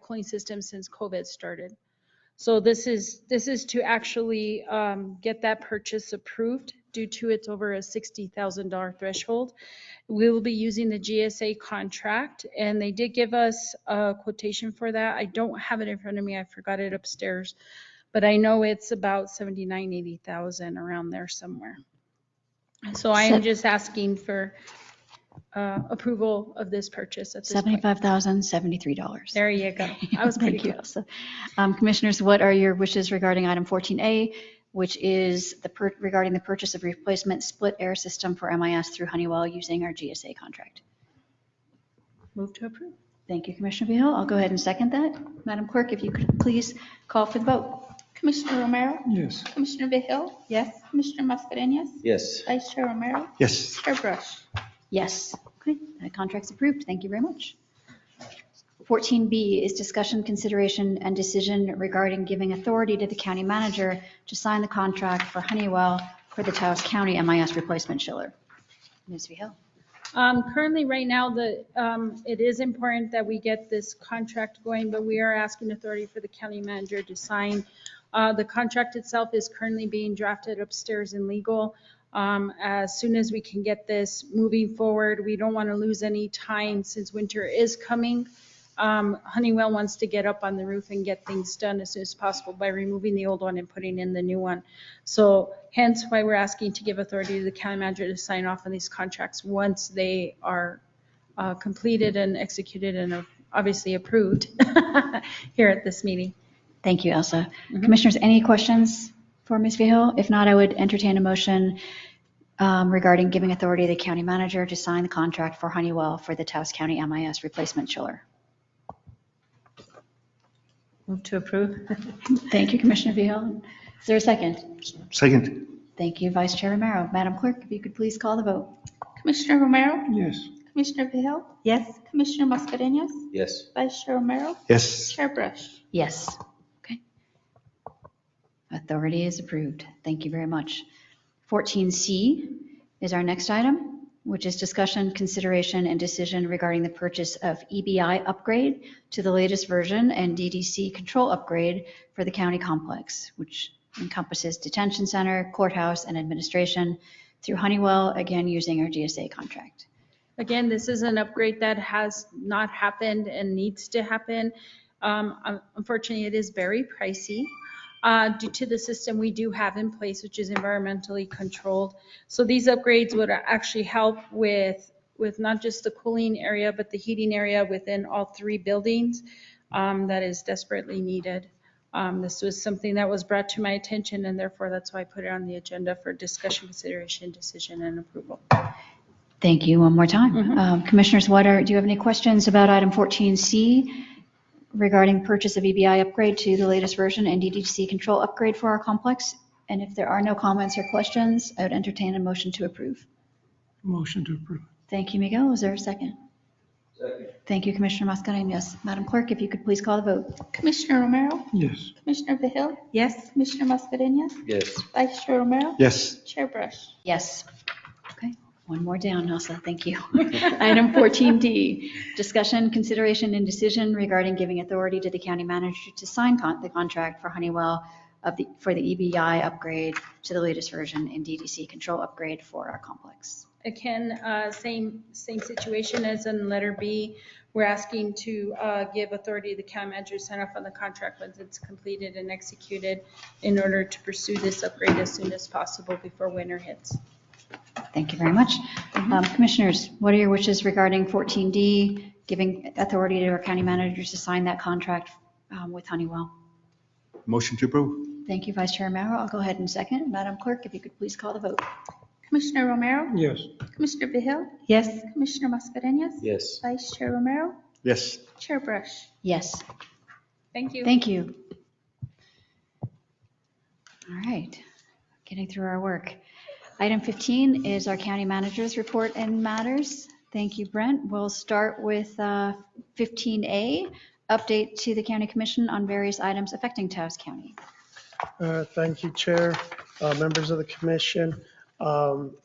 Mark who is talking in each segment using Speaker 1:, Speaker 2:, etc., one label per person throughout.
Speaker 1: cooling system since COVID started. So this is, this is to actually um, get that purchase approved due to it's over a $60,000 threshold. We will be using the GSA contract, and they did give us a quotation for that. I don't have it in front of me, I forgot it upstairs, but I know it's about 79, 80,000 around there somewhere. So I am
Speaker 2: Sev-
Speaker 1: just asking for uh, approval of this purchase at this point.
Speaker 2: $75,073.
Speaker 1: There you go. I was pretty
Speaker 2: Thank you,
Speaker 1: close.
Speaker 2: Elsa. Um, Commissioners, what are your wishes regarding item 14A, which is the, pur- regarding the purchase of replacement split air system for MIS through Honeywell using our GSA contract?
Speaker 1: Move to approve.
Speaker 2: Thank you, Commissioner Vehil. I'll go ahead and second that. Madam Clerk, if you could please call for the vote.
Speaker 3: Commissioner Romero,
Speaker 4: Yes.
Speaker 3: Commissioner Vehil,
Speaker 2: Yes?
Speaker 3: Commissioner Mascarenhas,
Speaker 5: Yes.
Speaker 3: Vice Chair Romero,
Speaker 4: Yes.
Speaker 3: Chair Brush.
Speaker 2: Yes. Okay, that contract's approved. Thank you very much. 14B is discussion, consideration, and decision regarding giving authority to the county manager to sign the contract for Honeywell for the Taos County MIS replacement chiller. Ms. Vehil?
Speaker 1: Um, Currently, right now, the, um, it is important that we get this contract going, but we are asking authority for the county manager to sign. Uh, The contract itself is currently being drafted upstairs in legal. Um, As soon as we can get this moving forward, we don't want to lose any time since winter is coming. Um, Honeywell wants to get up on the roof and get things done as soon as possible by removing the old one and putting in the new one. So hence why we're asking to give authority to the county manager to sign off on these contracts once they are uh, completed and executed and uh, obviously approved here at this meeting.
Speaker 2: Thank you, Elsa. Commissioners, any questions for Ms. Vehil? If not, I would entertain a motion um, regarding giving authority to the county manager to sign the contract for Honeywell for the Taos County MIS replacement chiller.
Speaker 1: Move to approve.
Speaker 2: Thank you, Commissioner Vehil. Is there a second?
Speaker 4: Second.
Speaker 2: Thank you, Vice Chair Romero. Madam Clerk, if you could please call the vote.
Speaker 3: Commissioner Romero,
Speaker 4: Yes.
Speaker 3: Commissioner Vehil,
Speaker 1: Yes.
Speaker 3: Commissioner Mascarenhas,
Speaker 5: Yes.
Speaker 3: Vice Chair Romero,
Speaker 4: Yes.
Speaker 3: Chair Brush.
Speaker 2: Yes. Okay. Authority is approved. Thank you very much. 14C is our next item, which is discussion, consideration, and decision regarding the purchase of EBI upgrade to the latest version and DDC control upgrade for the county complex, which encompasses detention center, courthouse, and administration through Honeywell, again, using our GSA contract.
Speaker 1: Again, this is an upgrade that has not happened and needs to happen. Um, un- Unfortunately, it is very pricey uh, due to the system we do have in place, which is environmentally controlled. So these upgrades would actually help with, with not just the cooling area, but the heating area within all three buildings um, that is desperately needed. Um, This was something that was brought to my attention, and therefore that's why I put it on the agenda for discussion, consideration, decision, and approval.
Speaker 2: Thank you one more time. Um, Commissioners, what are, do you have any questions about item 14C regarding purchase of EBI upgrade to the latest version and DDC control upgrade for our complex? And if there are no comments or questions, I would entertain a motion to approve.
Speaker 4: Motion to approve.
Speaker 2: Thank you, Miguel. Is there a second? Thank you, Commissioner Mascarenhas. Madam Clerk, if you could please call the vote.
Speaker 3: Commissioner Romero,
Speaker 4: Yes.
Speaker 3: Commissioner Vehil,
Speaker 1: Yes.
Speaker 3: Commissioner Mascarenhas,
Speaker 5: Yes.
Speaker 3: Vice Chair Romero,
Speaker 4: Yes.
Speaker 3: Chair Brush.
Speaker 2: Yes. Okay, one more down, Elsa, thank you. Item 14D, discussion, consideration, and decision regarding giving authority to the county manager to sign con- the contract for Honeywell of the, for the EBI upgrade to the latest version and DDC control upgrade for our complex.
Speaker 1: Again, uh, same, same situation as in letter B. We're asking to uh, give authority to the county manager to sign off on the contract once it's completed and executed in order to pursue this upgrade as soon as possible before winter hits.
Speaker 2: Thank you very much. Um, Commissioners, what are your wishes regarding 14D, giving authority to our county managers to sign that contract um, with Honeywell?
Speaker 4: Motion to approve.
Speaker 2: Thank you, Vice Chair Romero. I'll go ahead and second. Madam Clerk, if you could please call the vote.
Speaker 3: Commissioner Romero,
Speaker 4: Yes.
Speaker 3: Commissioner Vehil,
Speaker 1: Yes.
Speaker 3: Commissioner Mascarenhas,
Speaker 5: Yes.
Speaker 3: Vice Chair Romero,
Speaker 4: Yes.
Speaker 3: Chair Brush.
Speaker 2: Yes.
Speaker 1: Thank you.
Speaker 2: Thank you. All right, getting through our work. Item 15 is our county manager's report and matters. Thank you, Brent. We'll start with uh, 15A, update to the county commission on various items affecting Taos County.
Speaker 6: Uh, Thank you, Chair, uh, members of the commission. Um,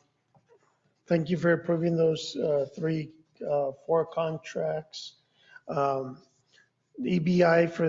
Speaker 6: Thank you for approving those uh, three, uh, four contracts. Um, EBI for